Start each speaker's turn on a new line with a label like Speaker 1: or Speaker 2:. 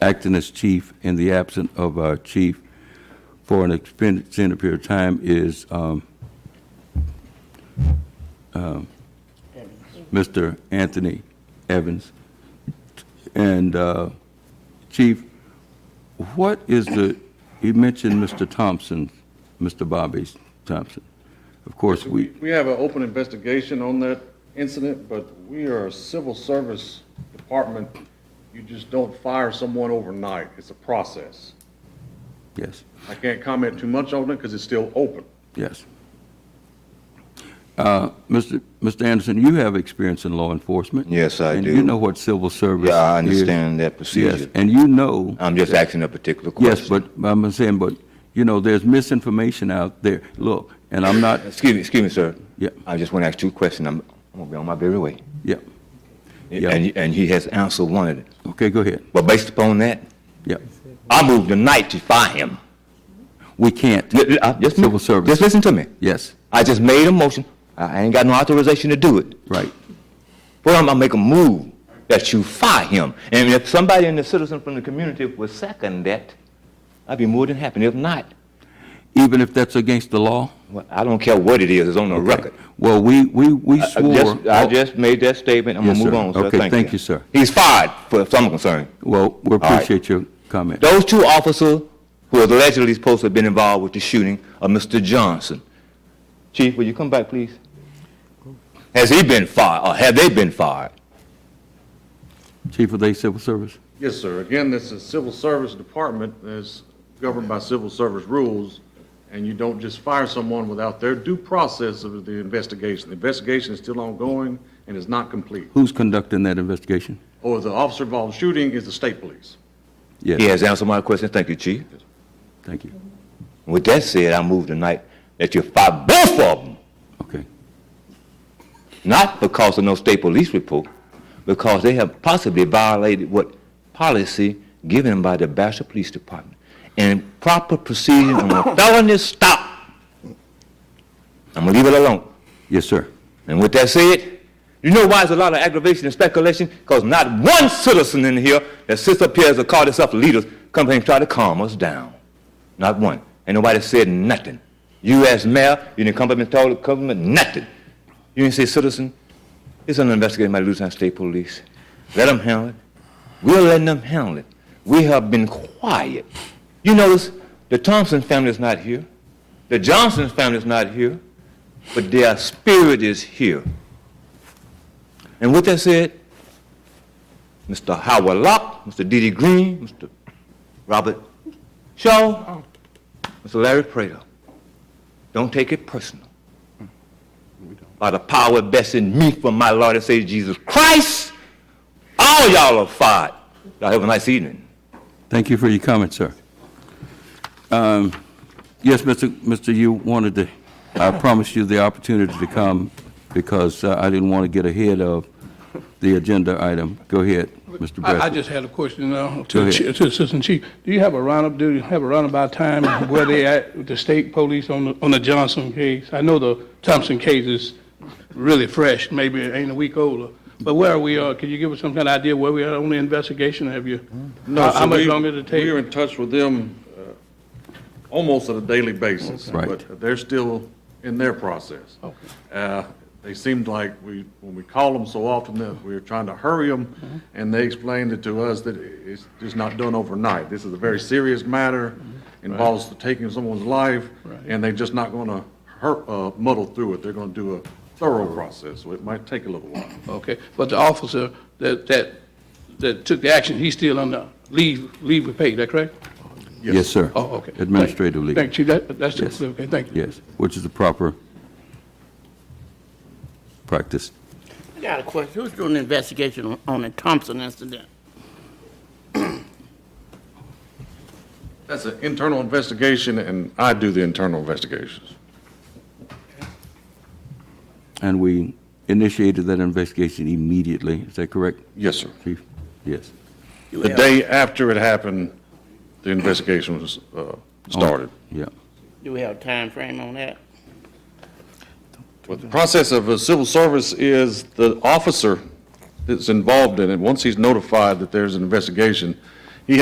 Speaker 1: acting as chief in the absence of our chief for an extended period of time is um, um, Mr. Anthony Evans. And uh, Chief, what is the, you mentioned Mr. Thompson, Mr. Bobby Thompson. Of course, we,
Speaker 2: We have an open investigation on that incident, but we are a civil service department. You just don't fire someone overnight. It's a process.
Speaker 1: yes.
Speaker 2: I can't comment too much on it because it's still open.
Speaker 1: Yes. Uh, Mr. Mr. Anderson, you have experience in law enforcement.
Speaker 3: Yes, I
Speaker 1: And
Speaker 3: do.
Speaker 1: you know what civil service is.
Speaker 3: Yeah, I understand that
Speaker 1: Yes,
Speaker 3: procedure. Uh,
Speaker 1: and you know,
Speaker 3: I'm just asking a particular question.
Speaker 1: yes, but I'm saying, but, you know, there's misinformation out there. Look, and I'm not,
Speaker 3: Excuse me, excuse me, sir.
Speaker 1: Yeah.
Speaker 3: I just want to ask two questions. I'm, I'm gonna be on my very way.
Speaker 1: yeah, Yeah.
Speaker 3: And, and he has answered one of them.
Speaker 1: okay, go ahead.
Speaker 3: But based upon that,
Speaker 1: Yeah,
Speaker 3: I move tonight to fire him.
Speaker 1: we can't,
Speaker 3: Li- li- uh, Just
Speaker 1: Civil service.
Speaker 3: Just listen to me.
Speaker 1: yes,
Speaker 3: I just made a motion. I I ain't got no authorization to do it.
Speaker 1: right,
Speaker 3: But I'm gonna make a move that you fire him. And if somebody in the citizen from the community would second that, I'd be more than happy. If not,
Speaker 1: even if that's against the law?
Speaker 3: well, I don't care what it is, it's on the record.
Speaker 1: Well, we, we, we
Speaker 3: I
Speaker 1: swore.
Speaker 3: just, Uh, I just made that statement. I'm
Speaker 1: Oh. Yes,
Speaker 3: gonna move
Speaker 1: sir.
Speaker 3: on, sir.
Speaker 1: Okay, thank you, sir.
Speaker 3: He's fired, for some concern.
Speaker 1: Well, we
Speaker 3: right.
Speaker 1: appreciate your comment.
Speaker 3: Those two officers who was allegedly supposed to have been involved with the shooting of Mr. Johnson. Chief, will you come back, please? Has he been fired, or have they been fired?
Speaker 1: Chief, of they civil service?
Speaker 2: Yes, sir. Again, this is civil service department that's governed by civil service rules, and you don't just fire someone without their due process of the investigation. The investigation is still ongoing and is not complete.
Speaker 1: Who's conducting that investigation?
Speaker 2: Or the officer involved in shooting is the state police.
Speaker 1: Yes.
Speaker 3: He has answered my question. Thank you, Chief.
Speaker 1: Thank you.
Speaker 3: With that said, I move tonight that you fire both of them,
Speaker 1: Okay.
Speaker 3: not because of no state police report, because they have possibly violated what policy given by the Bastrop Police Department and proper procedure on a felony stop. I'm gonna leave it alone.
Speaker 1: Yes, sir.
Speaker 3: And with that said, you know why there's a lot of aggravation and speculation? Because not one citizen in here that sits up here as a call itself leaders come here and try to calm us down. Not one. Ain't nobody said nothing. You as mayor, you didn't come up and tell the government nothing. You didn't say, citizen, it's under investigation by the Louisiana State Police. Let them handle it. We're letting them handle it. We have been quiet. You notice the Thompson family is not here. The Johnson family is not here but their spirit is here. And with that said, Mr. Howard Locke, Mr. D.D. Green, Mr. Robert Shaw, Mr. Larry Prater, don't take it personal. By the power that's in me from my Lord and Savior Jesus Christ, all y'all are fired. Y'all have a nice evening.
Speaker 1: Thank you for your comment, sir. Um, Yes, Mr. Mr. You wanted to, I promised you the opportunity to come because uh, I didn't want to get ahead of the agenda item. Go ahead, Mr.
Speaker 4: I, I
Speaker 1: Bradford.
Speaker 4: just had a question uh,
Speaker 1: Go
Speaker 4: to the
Speaker 1: ahead.
Speaker 4: chi- to the Assistant Chief. Do you have a roundup, do you have a roundabout time where they at, with the state police on the, on the Johnson case? I know the Thompson case is really fresh, maybe it ain't a week older. But where are we, uh, can you give us some kind of idea where we are on the investigation? Have you?
Speaker 2: No,
Speaker 4: how-
Speaker 2: so
Speaker 4: How much
Speaker 2: we-
Speaker 4: longer did it take?
Speaker 2: We're in touch with them uh, almost on a daily basis.
Speaker 1: Right.
Speaker 2: But they're still in their process.
Speaker 4: Okay.
Speaker 2: Uh, They seemed like we, when we call them so often that we're trying to hurry
Speaker 4: Mm-hmm.
Speaker 2: them, and they explained it to us that it's just not done overnight. This is a very serious matter, involves the taking of someone's life,
Speaker 4: Mm-hmm. Right.
Speaker 2: and they're just not going to hurt, uh, muddle through it. They're going to do a thorough process, so it might take a little while.
Speaker 4: Okay, but the officer that, that, that took the action, he's still on the leave, leave with pay, is that correct?
Speaker 1: Yes, sir.
Speaker 4: Oh, okay. Thank-
Speaker 1: Administrative leave.
Speaker 4: Thank you, that, that's,
Speaker 1: Yes.
Speaker 4: okay, thank you.
Speaker 1: Yes, which is the proper practice.
Speaker 5: I got a question. Who's doing the investigation on- on the Thompson incident?
Speaker 2: That's an internal investigation, and I do the internal investigations.
Speaker 1: And we initiated that investigation immediately. Is that correct,
Speaker 2: Yes, sir.
Speaker 1: Chief? Yes.
Speaker 5: You
Speaker 2: The
Speaker 5: have-
Speaker 2: day after it happened, the investigation was uh, started.
Speaker 1: Yeah.
Speaker 5: Do we have a time frame on
Speaker 2: uh,
Speaker 5: that?
Speaker 2: But the process of a civil service is the officer that's involved in it, once he's notified that there's an investigation,